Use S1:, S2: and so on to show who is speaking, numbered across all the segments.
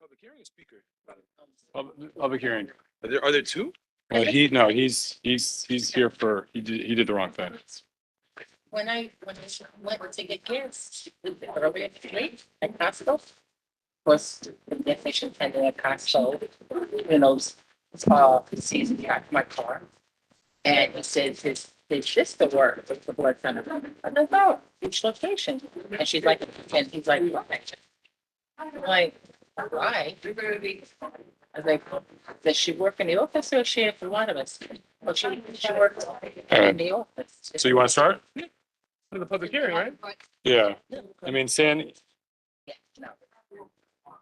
S1: Public hearing or speaker? Pub- Public hearing.
S2: Are there, are there two?
S1: Uh, he, no, he's, he's, he's here for, he did, he did the wrong thing.
S3: When I, when I went to get gas, earlier today at Costco, was the definition and then at Costco, you know, s- uh, sees me out my car. And he says his, his sister worked with the blood center. I don't know, each location. And she's like, and he's like, why? I'm like, why? I was like, does she work in the office or is she for one of us? Well, she, she worked in the office.
S1: So you want to start? The public hearing, right? Yeah, I mean, Sandy,
S3: Yeah, no.
S4: Hi,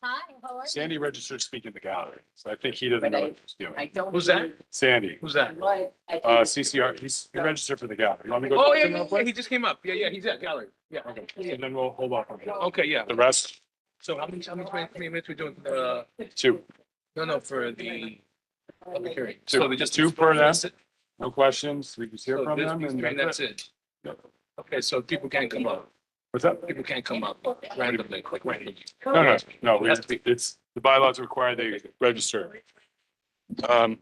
S4: how
S2: Oh,
S4: are you?
S1: Sandy registered to speak in the gallery, so I think he doesn't know what he's doing.
S3: I don't.
S2: Who's that?
S1: Sandy,
S2: Who's that?
S3: What?
S1: uh, CCR, he's, he registered for the gallery. You want me to go?
S2: Oh,
S1: talk to
S2: yeah,
S1: him
S2: yeah,
S1: real
S2: yeah,
S1: quick?
S2: he just came up. Yeah, yeah, he's at gallery. Yeah.
S1: Okay, and then we'll hold off on that.
S2: Okay, yeah.
S1: The rest,
S2: So how many, how many, how many minutes we doing, uh,
S1: two,
S2: no, no, for the public hearing?
S1: Two.
S2: So we just-
S1: Two per them.
S2: So
S1: no questions, we just hear
S2: this
S1: from them
S2: week's
S1: and
S2: hearing,
S1: that's
S2: that's
S1: it.
S2: it. Okay, so people can't come up.
S1: What's up?
S2: People can't come up randomly, quick randomly.
S1: No, no, no, we-
S2: Has to be.
S1: it's, the bylaws require they register. Um,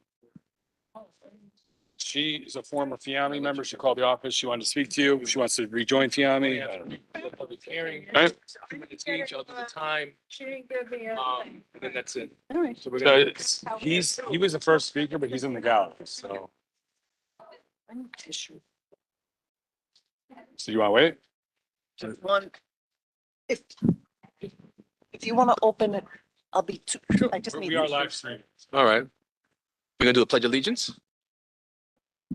S1: she is a former Fiami member. She called the office. She wanted to speak to you. She wants to rejoin Fiami. I uh, don't know.
S2: Public hearing,
S1: Right.
S2: two minutes each, other the time,
S4: She didn't give me a.
S2: um, and then that's it. So we're
S1: So
S2: gonna,
S1: it's, he's, he was the first speaker, but he's in the gallery, so. So you want to wait?
S3: Just One,
S5: If, if you want to open it, I'll be too, I just need.
S1: We are live streaming.
S2: all right. We're gonna do the pledge allegiance?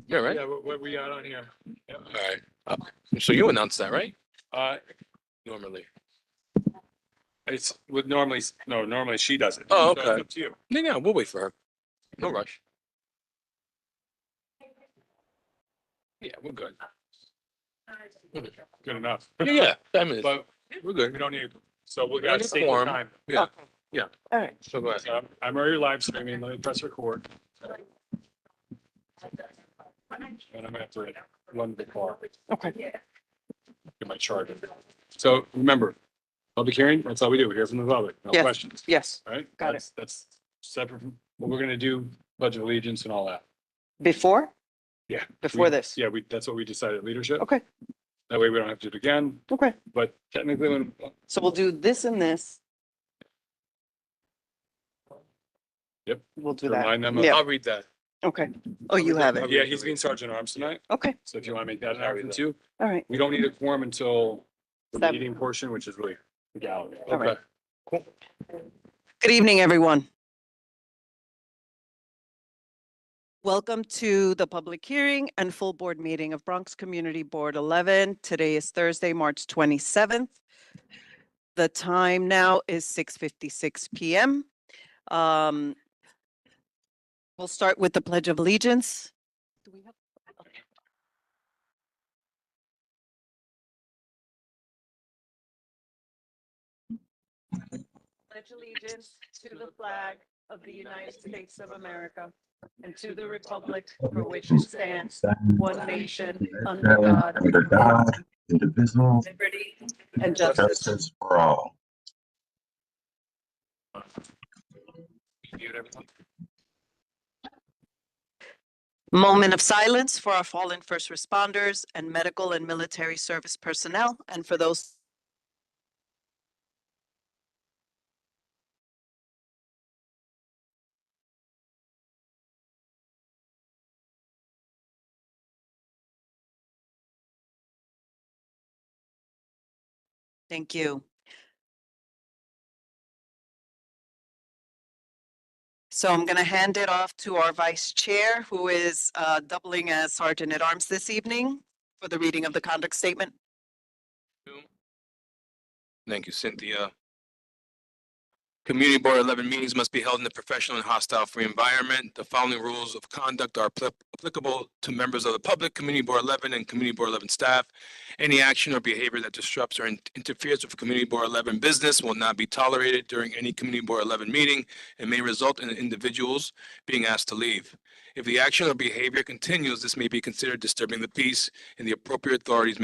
S2: Yeah, right?
S1: Yeah, what, we got on here?
S2: All right. Uh, So you announced that, right?
S1: Uh,
S2: Normally.
S1: it's, would normally, no, normally she does it.
S2: Oh,
S1: So it's
S2: okay.
S1: up to you.
S2: No, no, we'll wait for her. No rush. Yeah, we're good.
S1: Good enough.
S2: Yeah, yeah, five minutes.
S1: But
S2: We're good.
S1: we don't need, so we
S2: We
S1: got
S2: need
S1: to
S2: a
S1: state the
S2: quorum.
S1: time.
S2: Yeah,
S5: Okay.
S2: yeah.
S5: All right.
S2: So go ahead.
S1: So I'm- I'm already live streaming. Let me press record. And I'm gonna have to run the car,
S5: Okay.
S1: get my charger. So remember, public hearing, that's all we do. We hear from the public, no
S5: Yes.
S1: questions,
S5: Yes,
S1: right?
S5: Got it.
S1: That's- That's separate from what we're gonna do, budget allegiance and all that.
S5: before?
S1: Yeah.
S5: Before
S1: We-
S5: this?
S1: Yeah, we, that's what we decided, at leadership.
S5: Okay,
S1: That way we don't have to do it again,
S5: okay.
S1: but technically when,
S5: So we'll do this and this.
S1: Yep.
S5: We'll do that.
S1: remind them. of-
S5: Yeah.
S2: I'll read that.
S5: Okay. Oh, you have it.
S1: Yeah, he's being sergeant arms tonight.
S5: Okay,
S1: So if you want to make that an action too,
S5: all right.
S1: we don't need a quorum until the
S5: Seven.
S1: meeting portion, which is really the gallery.
S5: All right.
S1: Okay.
S5: Good evening, everyone. Welcome to the public hearing and full board meeting of Bronx Community Board 11. Today is Thursday, March 27th. The time now is 6:56 PM. Um, We'll start with the Pledge of Allegiance. Do we have- okay. pledge allegiance to the flag of the United States of America and to the republic for which it stands, one nation, under God,
S6: Under God, indivisible,
S5: liberty and justice.
S6: justice for all.
S5: Moment of silence for our fallen first responders and medical and military service personnel and for those Thank you. So I'm going to hand it off to our vice chair, who is uh, doubling as sergeant at arms this evening for the reading of the conduct statement.
S2: Thank you, Cynthia. Community Board eleven meetings must be held in a professional and hostile free environment. The following rules of conduct are appli- applicable to members of the public, Community Board eleven and Community Board eleven staff. Any action or behavior that disrupts or in- interferes with Community Board eleven business will not be tolerated during any Community Board eleven meeting and may result in individuals being asked to leave. If the action or behavior continues, this may be considered disturbing the peace and the appropriate authorities may